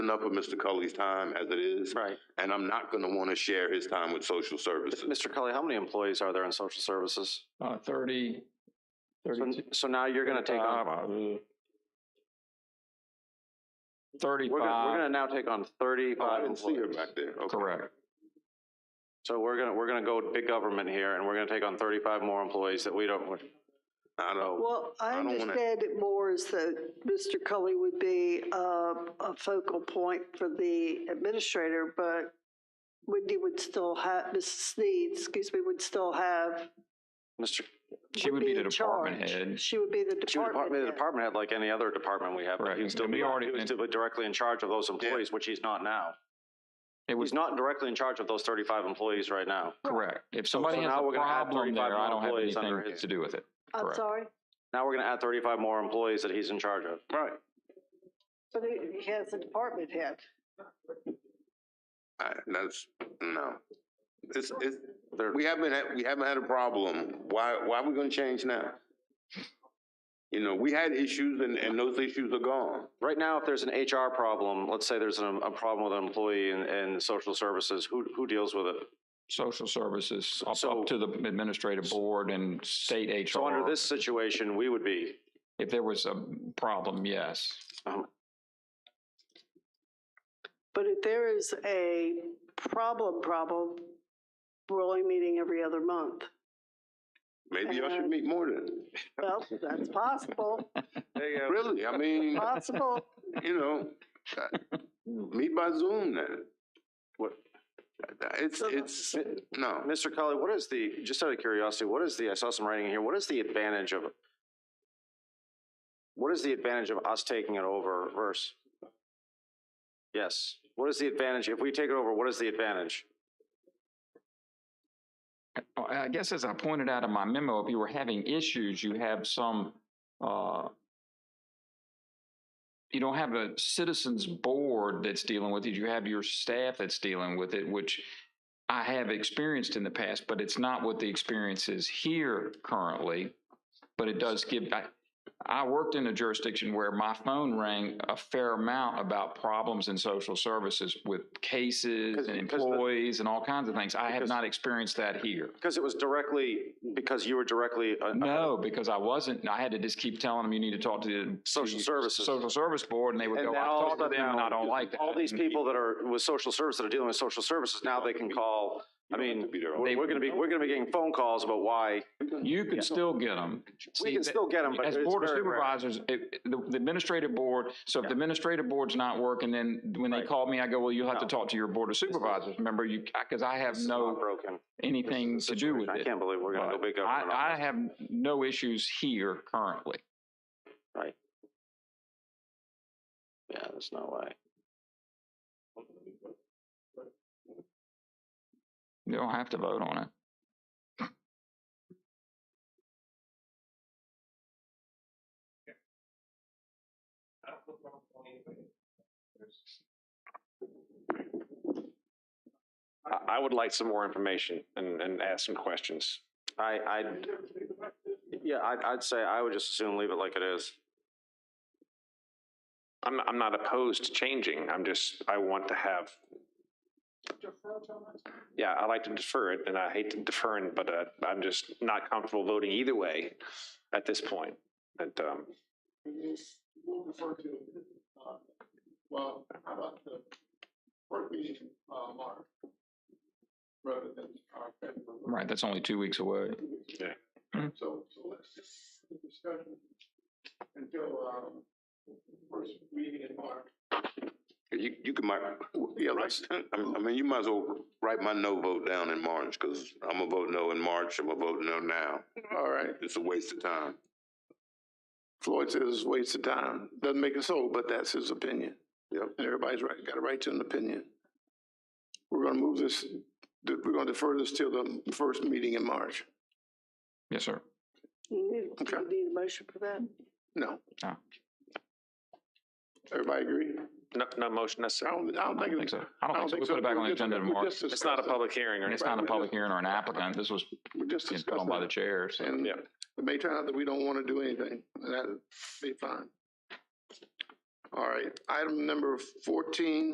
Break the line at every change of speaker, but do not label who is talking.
enough of Mr. Cully's time as it is.
Right.
And I'm not gonna wanna share his time with social services.
Mr. Cully, how many employees are there in social services?
uh, thirty,
So,
thirty-two. uh,
so now you're gonna take on, we're gonna, we're
Thirty-five,
gonna now take on
Oh, I
thirty-five
didn't see her
employees.
back there. Okay.
correct.
So we're gonna, we're gonna go big government here and we're gonna take on thirty-five more employees that we don't,
I don't,
Well, I
I don't wanna-
understand it more as that Mr. Cully would be uh, a focal point for the administrator, but Wendy would still have, Mrs. Sneed, excuse me, would still have.
Mr.
She would be the
in
department
charge.
head.
She would be the
She was
department
department, the
head.
department head like any other department we have, but he
Right.
would still
And we
be, he
already-
was still directly in charge of those employees, which he's not now.
It was
He's not directly in charge of those thirty-five employees right now.
correct. If somebody
so
has
now
a
we're gonna have
problem
35
there, I don't have
employees under
anything
his-
to do with it.
I'm
correct.
sorry,
Now we're gonna add thirty-five more employees that he's in charge of.
right.
but he he has a department head.
I, that's, no. It's, it's,
They're-
we haven't, had- we haven't had a problem. Why, why are we gonna change now? You know, we had issues and, and those issues are gone.
Right now, if there's an HR problem, let's say there's an- a problem with an employee in, in social services, who, who deals with it?
Social services, up,
So-
up to the administrative board and state
So under
HR.
this situation, we would be,
If there was a problem, yes.
But if there is a problem, problem, we're only meeting every other month.
Maybe y'all should meet more than,
Well, that's possible,
really, I mean,
possible.
you know, uh, meet by Zoom then. What? It's, it's, no.
Mr. Cully, what is the, just out of curiosity, what is the, I saw some writing here, what is the advantage of, what is the advantage of us taking it over versus? Yes, what is the advantage, if we take it over, what is the advantage?
Uh, I guess as I pointed out in my memo, if you were having issues, you have some, uh, you don't have a citizens board that's dealing with it. You have your staff that's dealing with it, which I have experienced in the past, but it's not what the experience is here currently. But it does give, I, I worked in a jurisdiction where my phone rang a fair amount about problems in social services with cases
'Cause-
and
'cause the-
employees and all kinds of things. I have
Because-
not experienced that here.
Because it was directly, because you were directly. uh,
No, because I wasn't. I had to just keep telling them, you need to talk to the.
Social
the
services.
Social service board, and they would
And
go,
then
I
all of a
talked to
sudden
them and
now,
I don't like that.
All these
And
people that are with social service that are dealing with social services, now they can call, I mean,
They-
we're, we're gonna be, we're gonna be getting phone calls about why.
You can still get them.
We can still get them, but it's
As board of
very rare.
supervisors, it- the the administrative board, so if the administrative board's not working, then when they
Right.
call me, I go, well, you'll have to
No.
talk to your board of supervisors. Remember, you, because I have
This is not
no,
Broken. This
anything
is the
to do with
situation. I
it.
can't believe we're gonna go
But
big government. on
I, I
this.
have no issues here currently.
Yeah, there's no way.
You don't have to vote on it.
I, I would like some more information and, and ask some questions.
I, I, yeah, I'd, I'd say I would just as soon leave it like it is.
I'm, I'm not opposed to changing. I'm just, I want to have. Yeah, I like to defer it and I hate to defer it, but, uh, I'm just not comfortable voting either way at this point. But, um,
we'll refer to, uh, well, how about the first meeting, uh, March? Rather than our February,
Right, that's only two weeks away.
so, so let's just the discussion until, um, first meeting in March.
You, you can, mark- yeah, right. I mean, you might as well write my no vote down in March, because I'm gonna vote no in March, I'm gonna vote no now. All right. It's a waste of time.
Floyd says it's a waste of time, doesn't make it so, but that's his opinion. Yep. And everybody's right, got a right to an opinion. We're gonna move this, we're gonna defer this till the first meeting in March,
Yes, sir.
You need-
Okay.
you need a motion for that?
no?
No.
Everybody agree?
no, no motion
I
necessary.
don't, I don't think
I think
it's.
so. I don't think so. We put it back on the agenda tomorrow.
It's
It's not a public hearing or
And it's
anything.
not a public hearing or an applicant. This was
We're just
being put on
discussing.
by the
it.
chair, so.
And
Yeah.
it may turn out that we don't want to do anything, and that'd be fine. All right, item number fourteen